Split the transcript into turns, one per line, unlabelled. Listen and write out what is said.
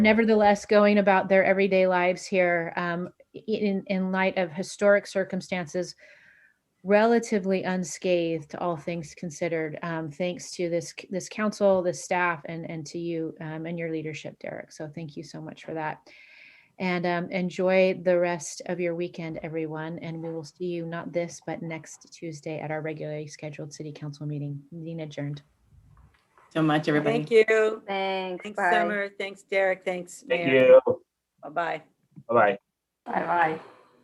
nevertheless going about their everyday lives here um, in, in light of historic circumstances relatively unscathed all things considered um, thanks to this this council this staff and and to you um, and your leadership derek so thank you so much for that and um, enjoy the rest of your weekend everyone and we will see you not this but next tuesday at our regularly scheduled city council meeting meeting adjourned
So much, everybody.
Thank you.
Thanks.
Thanks,
Bye.
Summer. Thanks, Derek. Thanks,
Thank
Mayor.
you.
Bye-bye.
Bye-bye.
Bye-bye.